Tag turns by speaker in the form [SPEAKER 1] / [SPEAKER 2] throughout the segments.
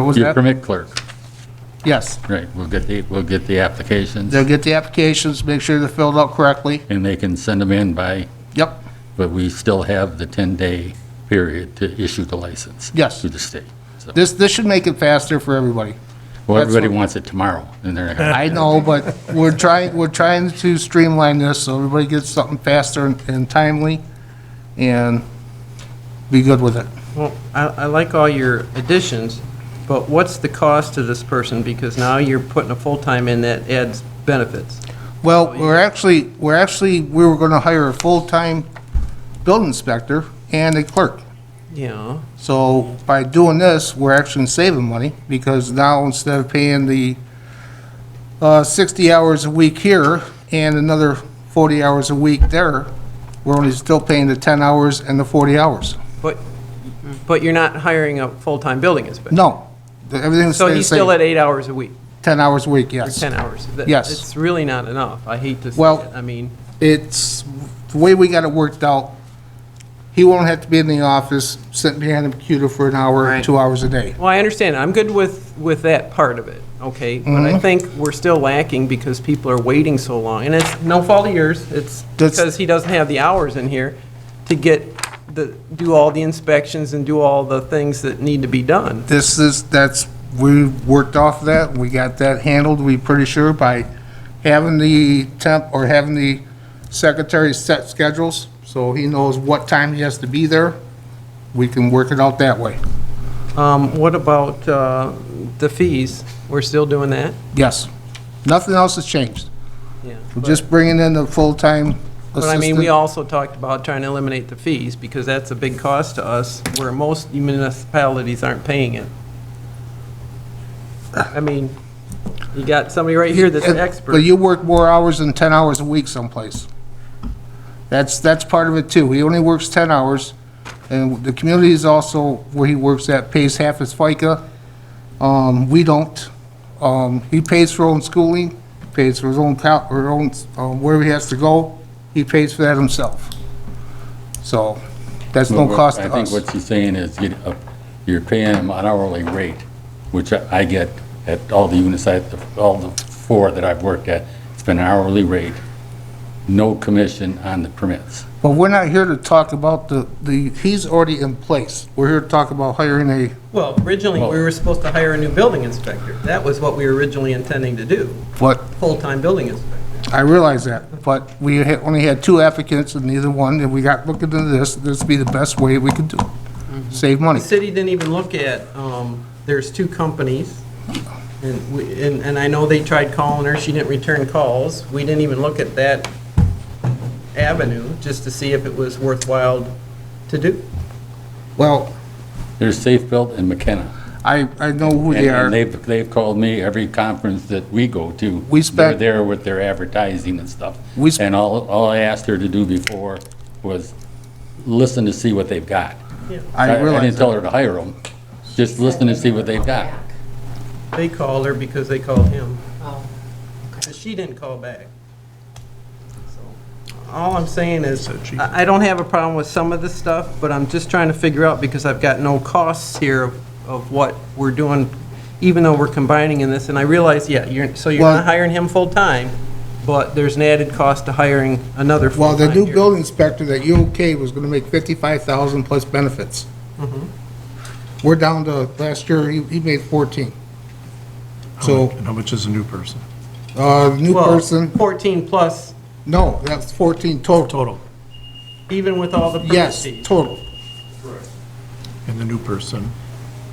[SPEAKER 1] What was
[SPEAKER 2] Your
[SPEAKER 1] that?
[SPEAKER 2] permit clerk,
[SPEAKER 1] Yes.
[SPEAKER 2] right, we'll get the, we'll get the applications,
[SPEAKER 1] They'll get the applications, make sure they're filled out correctly.
[SPEAKER 2] and they can send them in by,
[SPEAKER 1] Yep,
[SPEAKER 2] but we still have the 10-day period to issue the license.
[SPEAKER 1] Yes.
[SPEAKER 2] To the state. So-
[SPEAKER 1] this, this should make it faster for everybody.
[SPEAKER 2] Well,
[SPEAKER 1] that's
[SPEAKER 2] everybody
[SPEAKER 1] what-
[SPEAKER 2] wants it tomorrow, and they're not gonna-
[SPEAKER 1] I know, but we're trying, we're trying to streamline this so everybody gets something faster and- and timely and be good with it.
[SPEAKER 3] Well, I, I like all your additions, but what's the cost to this person? Because now you're putting a full-time in that adds benefits.
[SPEAKER 1] Well, we're actually, we're actually, we were gonna hire a full-time building inspector and a clerk.
[SPEAKER 3] Yeah,
[SPEAKER 1] So by doing this, we're actually saving money because now instead of paying the uh, 60 hours a week here and another 40 hours a week there, we're only still paying the 10 hours and the 40 hours.
[SPEAKER 3] but, but you're not hiring a full-time building inspector.
[SPEAKER 1] No, the- everything stays
[SPEAKER 3] So
[SPEAKER 1] the
[SPEAKER 3] he's still at
[SPEAKER 1] same.
[SPEAKER 3] eight hours a week,
[SPEAKER 1] 10 hours a week,
[SPEAKER 3] or
[SPEAKER 1] yes.
[SPEAKER 3] 10 hours. That-
[SPEAKER 1] Yes.
[SPEAKER 3] It's really not enough. I hate to say
[SPEAKER 1] Well-
[SPEAKER 3] it. I mean,
[SPEAKER 1] It's, the way we got it worked out, he won't have to be in the office sitting behind a computer for an hour,
[SPEAKER 3] Right.
[SPEAKER 1] two hours a day.
[SPEAKER 3] well, I understand. I'm good with, with that part of it, okay? But
[SPEAKER 1] Mm-hmm.
[SPEAKER 3] I think we're still lacking because people are waiting so long. And it's no fault of yours. It's
[SPEAKER 1] That's-
[SPEAKER 3] because he doesn't have the hours in here to get the, do all the inspections and do all the things that need to be done.
[SPEAKER 1] This is, that's, we worked off that, we got that handled, we pretty sure, by having the temp, or having the secretary set schedules, so he knows what time he has to be there. We can work it out that way.
[SPEAKER 3] Um, What about uh, the fees? We're still doing that?
[SPEAKER 1] Yes. Nothing else has changed.
[SPEAKER 3] Yeah.
[SPEAKER 1] We're just bringing in the full-time
[SPEAKER 3] But I mean, we
[SPEAKER 1] assistant.
[SPEAKER 3] also talked about trying to eliminate the fees, because that's a big cost to us, where most municipalities aren't paying it. I mean, you got somebody right here that's an expert.
[SPEAKER 1] But you work more hours than 10 hours a week someplace. That's, that's part of it too. He only works 10 hours, and the community is also where he works at, pays half his FICA. Um, we don't. Um, he pays for own schooling, pays for his own cou, or own, um, wherever he has to go, he pays for that himself. So, that's no
[SPEAKER 2] Well,
[SPEAKER 1] cost to
[SPEAKER 2] I think
[SPEAKER 1] us.
[SPEAKER 2] what she's saying is you- uh, you're paying them an hourly rate, which I I get at all the units, I- all the four that I've worked at. It's been an hourly rate, no commission on the permits.
[SPEAKER 1] But we're not here to talk about the, the, he's already in place. We're here to talk about hiring a
[SPEAKER 3] Well, originally, we were supposed to hire a new building inspector. That was what we were originally intending to do,
[SPEAKER 1] what
[SPEAKER 3] full-time building inspector.
[SPEAKER 1] I realize that, but we had- only had two applicants and neither one, and we got looking into this, this would be the best way we could do, it. save money.
[SPEAKER 3] The city didn't even look at, um, there's two companies, and we, and, and I know they tried calling her, she didn't return calls. We didn't even look at that avenue, just to see if it was worthwhile to do.
[SPEAKER 1] Well,
[SPEAKER 2] There's Safe Built and McKenna.
[SPEAKER 1] I, I know who
[SPEAKER 2] And-
[SPEAKER 1] they
[SPEAKER 2] And
[SPEAKER 1] are.
[SPEAKER 2] they've, they've called me every conference that we go to.
[SPEAKER 1] We spent-
[SPEAKER 2] They're there with their advertising and stuff.
[SPEAKER 1] We sp-
[SPEAKER 2] And all, all I asked her to do before was listen to see what they've got.
[SPEAKER 1] I
[SPEAKER 2] didn't
[SPEAKER 1] realize
[SPEAKER 2] tell
[SPEAKER 1] that.
[SPEAKER 2] her to hire them, just listen to see what they've got.
[SPEAKER 3] They called her because they called him,
[SPEAKER 4] Oh,
[SPEAKER 3] but she didn't call back. So, All I'm saying is, I, I don't have a problem with some of the stuff, but I'm just trying to figure out, because I've got no costs here of, of what we're doing, even though we're combining in this, and I realize, yeah, you're, so you're
[SPEAKER 1] Well-
[SPEAKER 3] not hiring him full-time, but there's an added cost to hiring another
[SPEAKER 1] Well,
[SPEAKER 3] full-time
[SPEAKER 1] the new
[SPEAKER 3] here.
[SPEAKER 1] building inspector that you okayed was gonna make fifty-five thousand plus benefits. We're down to, last year, he, he made fourteen.
[SPEAKER 5] How
[SPEAKER 1] So,
[SPEAKER 5] much- And how much is a new person?
[SPEAKER 1] uh, new
[SPEAKER 3] Well,
[SPEAKER 1] person,
[SPEAKER 3] Fourteen plus,
[SPEAKER 1] no, that's fourteen total.
[SPEAKER 5] Total.
[SPEAKER 3] even with all the permit
[SPEAKER 1] Yes,
[SPEAKER 3] fees.
[SPEAKER 1] total.
[SPEAKER 5] And the new person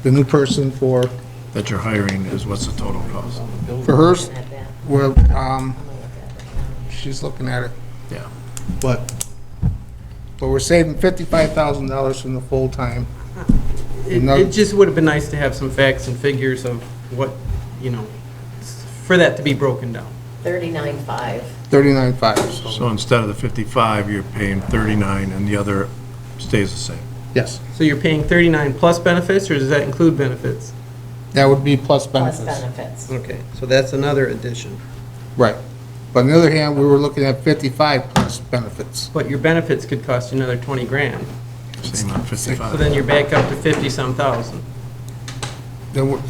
[SPEAKER 1] The new person for,
[SPEAKER 5] that you're hiring is, what's the total cost?
[SPEAKER 1] for hers,
[SPEAKER 4] at that.
[SPEAKER 1] well, um, she's looking at it.
[SPEAKER 5] Yeah.
[SPEAKER 1] But, but we're saving fifty-five thousand dollars from the full-time.
[SPEAKER 3] It,
[SPEAKER 1] Another-
[SPEAKER 3] it just would have been nice to have some facts and figures of what, you know, s- for that to be broken down.
[SPEAKER 4] Thirty-nine-five.
[SPEAKER 1] Thirty-nine five, so,
[SPEAKER 5] So instead of the 55, you're paying 39, and the other stays the same.
[SPEAKER 1] yes,
[SPEAKER 3] So you're paying 39 plus benefits, or does that include benefits?
[SPEAKER 1] that would be plus
[SPEAKER 4] Plus
[SPEAKER 1] benefits.
[SPEAKER 4] benefits.
[SPEAKER 3] Okay, so that's another addition.
[SPEAKER 1] Right. But on the other hand, we were looking at fifty-five plus benefits.
[SPEAKER 3] But your benefits could cost you another 20 grand.
[SPEAKER 5] Same on
[SPEAKER 3] So
[SPEAKER 5] 55.
[SPEAKER 3] then you're back up to 50-some thousand.
[SPEAKER 1] Then we're,